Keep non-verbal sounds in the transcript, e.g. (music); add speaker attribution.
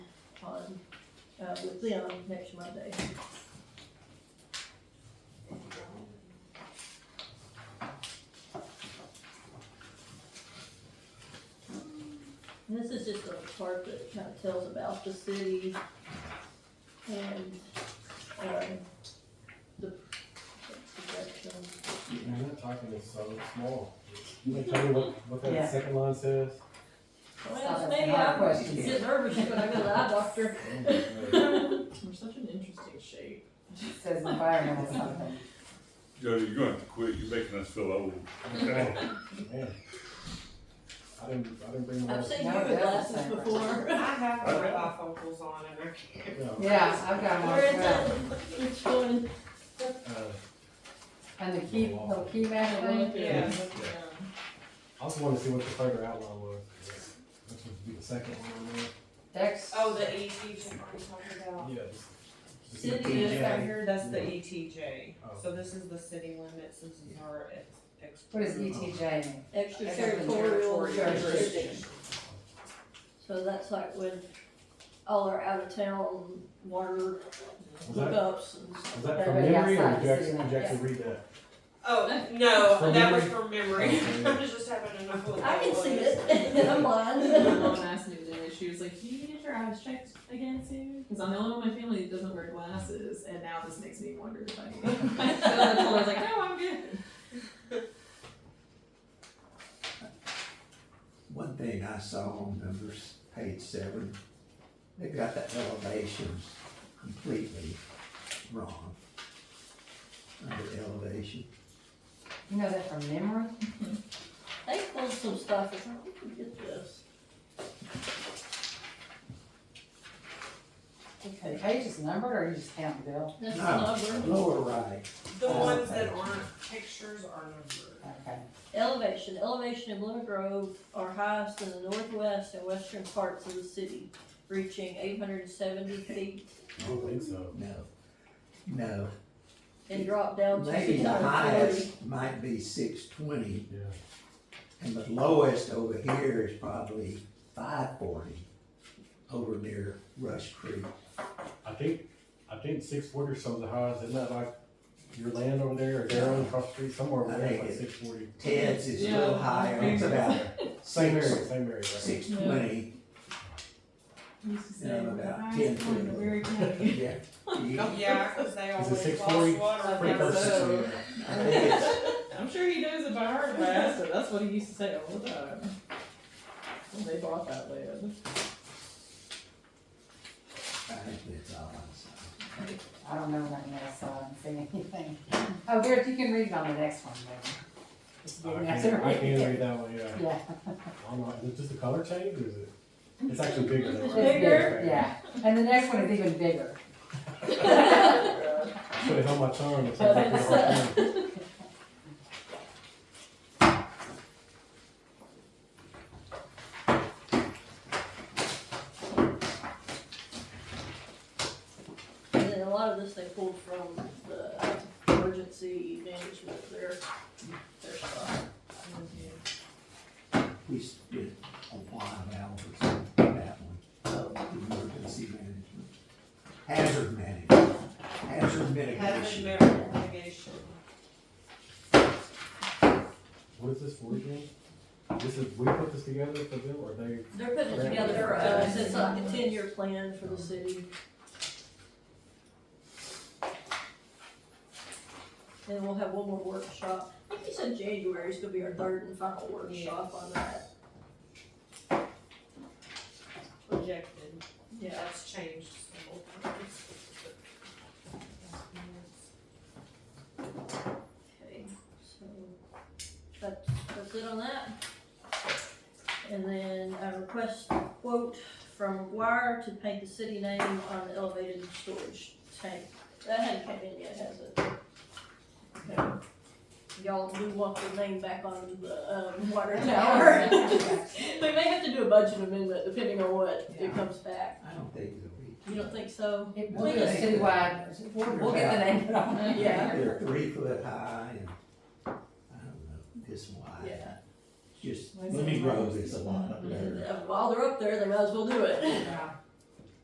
Speaker 1: uh, with Leon next Monday. And this is just a part that kind of tells about the city and, um, the projection.
Speaker 2: You're not talking this so small. You know, tell me what, what
Speaker 3: Yeah.
Speaker 2: that second line says?
Speaker 1: Well,
Speaker 3: that's
Speaker 1: maybe
Speaker 3: another
Speaker 1: I was
Speaker 3: question.
Speaker 1: just nervous when I go to the eye
Speaker 3: (laughs)
Speaker 2: Oh,
Speaker 1: doctor.
Speaker 4: We're such an interesting shape.
Speaker 3: Says environmental something.
Speaker 5: Jody, you're gonna have to quit, you're making us feel old.
Speaker 2: Man, I didn't, I didn't bring my.
Speaker 1: I've seen you
Speaker 3: No,
Speaker 1: with
Speaker 3: that's
Speaker 1: glasses
Speaker 3: different.
Speaker 1: before.
Speaker 4: (laughs) I have
Speaker 5: my
Speaker 4: my bifocals on and I
Speaker 2: Yeah,
Speaker 4: can't.
Speaker 3: Yeah, I've got one
Speaker 1: Where
Speaker 3: as
Speaker 1: is that?
Speaker 3: well.
Speaker 1: Which one?
Speaker 2: uh,
Speaker 3: And the key, the key matter thing.
Speaker 4: Yeah.
Speaker 2: I also wanted to see what the further outline was. Which would be the second one on there.
Speaker 3: Dex.
Speaker 4: Oh, the ETJ are you talking about?
Speaker 2: Yeah, just. just
Speaker 1: City
Speaker 2: the
Speaker 1: is
Speaker 2: PJ.
Speaker 4: This right here, that's the
Speaker 2: Yeah.
Speaker 4: ETJ.
Speaker 2: E Oh.
Speaker 4: So this is the city limits, this is our ex- ex.
Speaker 3: What is E ETJ mean?
Speaker 1: Extraterritorial jurisdiction.
Speaker 4: jurisdiction.
Speaker 1: So that's like when all our out of town water
Speaker 2: Was that,
Speaker 1: hookups and stuff.
Speaker 2: was that from
Speaker 3: Everybody
Speaker 2: memory or did
Speaker 3: outside the
Speaker 2: you actually,
Speaker 3: city
Speaker 2: did
Speaker 3: limits.
Speaker 2: you actually read that?
Speaker 4: Oh, no,
Speaker 2: From
Speaker 4: that was
Speaker 2: memory? Oh,
Speaker 4: from memory. (laughs)
Speaker 2: Okay.
Speaker 4: I was just having enough of
Speaker 1: I can see it, (laughs) I'm
Speaker 6: My
Speaker 1: blind.
Speaker 6: mom asked me today, she was like, "Can you get your eyes checked again soon?" Because I'm the only one in my family that doesn't wear glasses, and now this makes me wonder if I need. them. (laughs) so I told her, I was like, "No, I'm good."
Speaker 7: One thing I saw on numbers, page seven, they got the elevations completely wrong. Under elevation,
Speaker 3: You know that from memory?
Speaker 1: They pulled some stuff, it's like, we can get this.
Speaker 3: Okay, page is numbered or you just count Bill?
Speaker 1: That's the
Speaker 7: No.
Speaker 1: number,
Speaker 7: lower right,
Speaker 4: (laughs) The
Speaker 2: Oh,
Speaker 4: ones that aren't pictures are numbered.
Speaker 3: Okay.
Speaker 1: elevation, elevation in Glen Grove are highest in the northwest and western parts of the city, reaching eight hundred and seventy feet
Speaker 2: I don't think so.
Speaker 7: no, no.
Speaker 1: and drop down to
Speaker 7: Maybe
Speaker 1: six
Speaker 7: the
Speaker 1: hundred and forty.
Speaker 7: highest might be six twenty,
Speaker 2: Yeah.
Speaker 7: and the lowest over here is probably five forty, over near Rush Creek.
Speaker 2: I think, I think six forty or so is the highest, isn't that like your land over there or their own across the street somewhere over
Speaker 7: I
Speaker 2: there, it's
Speaker 7: think
Speaker 2: like
Speaker 7: it-
Speaker 2: six forty?
Speaker 7: Ted's is a little
Speaker 6: Yeah.
Speaker 7: higher, it's about
Speaker 2: Same area, same area, right?
Speaker 7: six twenty,
Speaker 6: I used to say,
Speaker 7: Yeah,
Speaker 6: "The
Speaker 7: about
Speaker 6: highest
Speaker 7: 10
Speaker 6: point in
Speaker 7: feet.
Speaker 6: Berry County."
Speaker 7: yeah. You-
Speaker 4: (laughs) Yeah, cause they
Speaker 2: Oh. Is it
Speaker 4: always
Speaker 2: 640?
Speaker 4: lost water.
Speaker 6: Pretty
Speaker 4: down
Speaker 6: close to
Speaker 4: there.
Speaker 6: so.
Speaker 7: I think it's
Speaker 6: (laughs) I'm sure he knows it by heart, but I asked him. That's what he used to say all the time when they bought that land.
Speaker 7: I think that's all I saw.
Speaker 3: I don't know nothing else, so I haven't seen anything. Oh, Garrett, you can read it on the next one, then. Just
Speaker 2: I
Speaker 3: didn't have
Speaker 2: can't,
Speaker 3: to
Speaker 2: I
Speaker 3: read
Speaker 2: can't
Speaker 3: it. (laughs)
Speaker 2: read that one, yeah. (laughs)
Speaker 3: Yeah.
Speaker 2: I don't know, is it just the color change or is it? It's actually bigger than
Speaker 1: It's
Speaker 2: that.
Speaker 3: It's
Speaker 1: Bigger?
Speaker 3: Yeah, and the next one is even bigger.
Speaker 2: Should have held my tongue. It's like a hard time.
Speaker 1: And then a lot of this they pulled from the emergency management, their, their stuff.
Speaker 7: We spent a while hours on that one, of emergency management. Hazard management, hazard
Speaker 4: Hazard
Speaker 7: mitigation.
Speaker 4: mitigation.
Speaker 2: What is this for again? This is, we put this together for them or they?
Speaker 1: They're putting it together for us, it's like a ten-year plan for the city. And we'll have one more workshop, I think you said January is gonna be our third and final workshop on that,
Speaker 4: Projected.
Speaker 1: yeah.
Speaker 4: That's changed several times.
Speaker 1: Okay, so that's, that's it on that. And then I request a quote from Wire to paint the city name on the elevated storage tank. That hasn't come in yet, has it? No. Y'all do want the name back on the, um, water tower.
Speaker 3: (laughs)
Speaker 1: We may have to do a budget amendment depending on what it
Speaker 3: Yeah.
Speaker 1: comes back.
Speaker 7: I don't think it'll be.
Speaker 1: You don't think so?
Speaker 3: It
Speaker 1: We'll
Speaker 3: took us
Speaker 7: get-
Speaker 3: too wide. We'll get the name put on it.
Speaker 1: Yeah.
Speaker 7: They're three foot high and, I don't know, this wide.
Speaker 1: Yeah.
Speaker 7: Just,
Speaker 6: Why is
Speaker 7: let
Speaker 6: it
Speaker 7: me
Speaker 6: wide?
Speaker 7: grow this a lot better.
Speaker 1: While they're up there, they might as well do it. (laughs)
Speaker 3: Yeah.